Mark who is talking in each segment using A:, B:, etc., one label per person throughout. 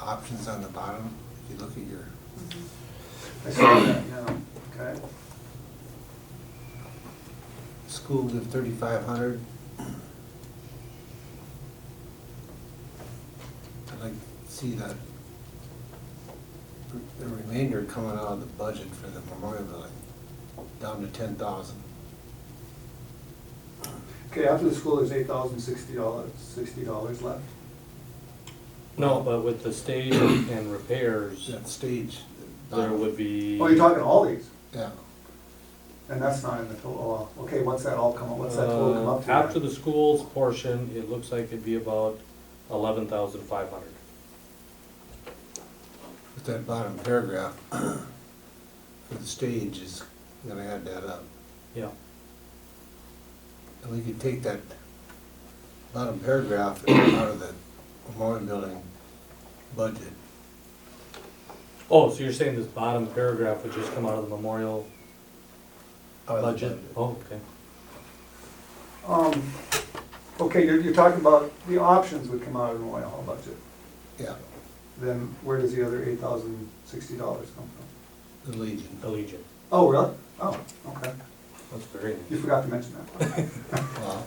A: options on the bottom, if you look at your,
B: I saw that, yeah, okay.
A: school give thirty-five hundred. I'd like to see that, the remainder coming out of the budget for the memorial building, down to ten thousand.
B: Okay, after the school, there's eight thousand sixty dollars, sixty dollars left.
C: No, but with the stage and repairs,
A: That stage. the
C: there
A: bottom.
C: would be.
B: Oh, you're talking all these,
A: Yeah,
B: and that's not in the total, oh, okay, what's that all come, up? what's that total come up to?
C: Uh, After
B: then?
C: the schools portion, it looks like it'd be about eleven thousand five hundred.
A: but that bottom paragraph for the stage is gonna add that up.
C: Yeah.
A: And we could take that bottom paragraph out of the memorial building budget.
C: Oh, so you're saying this bottom paragraph would just come out of the memorial
A: out of the
C: budget? Oh, okay.
B: Um, okay, you're, you're talking about the options would come out of the Royal Hall budget,
A: Yeah,
B: then where does the other eight thousand sixty dollars come from?
A: the Legion.
C: Allegiant.
B: Oh, really? Oh, okay,
C: That's very
B: you
C: nice.
B: forgot to mention that.
A: Wow,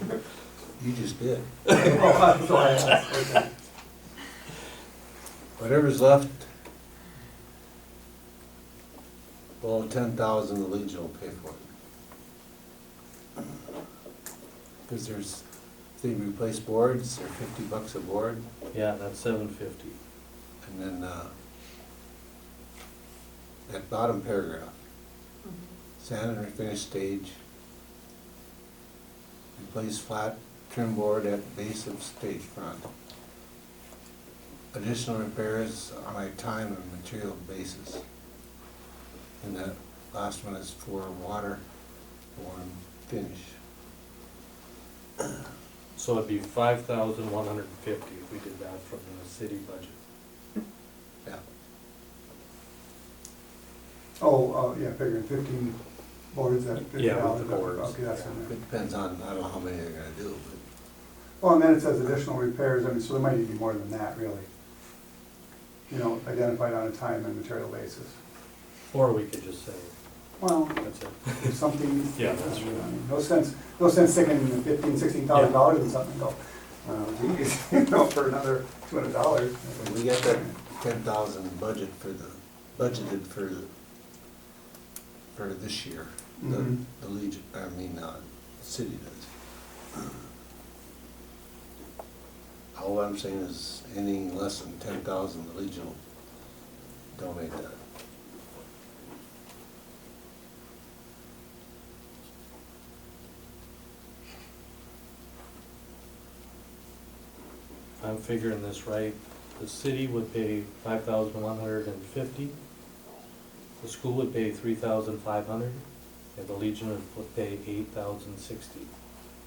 A: you just did.
B: Oh, that's all I asked, okay.
A: Whatever's left, well, ten thousand, the Legion will pay for it. Cause there's, if they replace boards, they're fifty bucks a board,
C: Yeah, that's seven fifty.
A: and then, uh, that bottom paragraph, sand and finished stage, replace flat trim board at base of stage front. Additional repairs on a time and material basis. And the last one is for water, form, finish.
C: So it'd be five thousand one hundred and fifty if we did that from the city budget.
A: Yeah,
B: Oh, uh, yeah, figuring fifteen boards at fifty
C: Yeah, with
B: dollars.
C: the boards.
B: Okay, that's in there.
A: it depends on, I don't know how many they're gonna do, but
B: Well, and then it says additional repairs, I mean, so there might even be more than that, really. You know, identified on a time and material basis.
C: Or we could just say,
B: Well,
C: that's it.
B: if something.
C: Yeah, that's
B: I
C: true.
B: mean, No sense, no sense sticking fifteen, sixteen thousand dollars in something, and go, uh, geez, you know, for another two hundred dollars.
A: when we get that ten thousand budget for the, budgeted for, the for this year. The,
B: Mhm.
A: the Legion, I mean, uh, city does. All I'm saying is anything less than ten thousand, the Legion will donate that.
C: If I'm figuring this right, the city would pay five thousand one hundred and fifty, the school would pay three thousand five hundred, and the Legion would put- pay eight thousand sixty.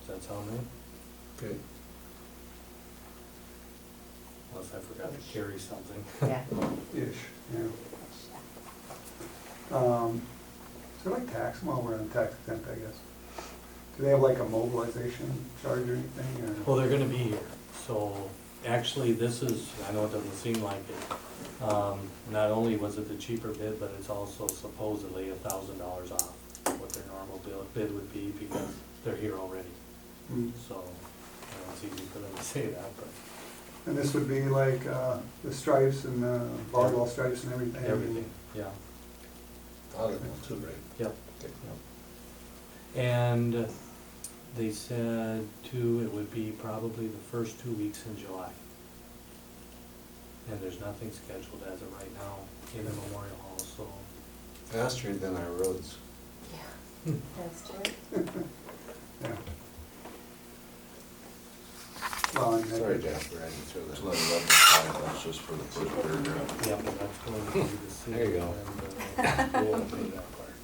C: Does that sound right?
A: Okay.
C: Unless I forgot to carry something.
D: Yeah.
B: Ish, yeah. Um, Is there like tax, well, we're on tax exempt, I guess. Do they have like a mobilization charge or anything, or?
C: Well, they're gonna be here, so actually, this is, I know it doesn't seem like it. Um, not only was it the cheaper bid, but it's also supposedly a thousand dollars off what their normal bill- bid would be because they're here already.
B: Mm.
C: So, I know it's easy for them to say that, but
B: And this would be like uh, the stripes and the volleyball stripes and everything?
C: everything, yeah,
A: Audible too, right?
C: yep,
A: Okay.
C: yep. And they said too, it would be probably the first two weeks in July. And there's nothing scheduled as of right now in the Memorial Hall, so.
A: Faster than our roads.
D: Yeah,
C: Hmm.
D: that's true.
B: Yeah. Well, and
A: Sorry,
B: that-
A: Jasper, I didn't throw that.
E: It's like eleven five, that's just for the first paragraph.
C: Yep, that's going to be the city.
A: There you go.
C: and, uh, we'll pay that part.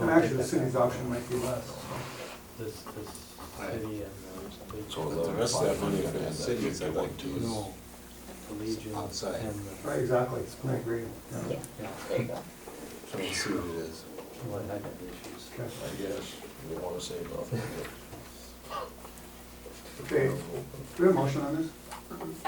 B: and actually, the city's option might be less.
C: This, this city and.
E: So
C: uh,
A: But the rest of that money for the city is I'd like
C: the-
A: to is
C: No, the Legion.
A: outside.
C: and the-
B: Right, exactly, I agree.
D: Yeah,
C: Yeah,
D: there you go.
A: trying to see what it is.
C: well, that could be issues.
B: Okay.
E: I guess, we wanna say about that.
B: Okay, do we have a motion on this?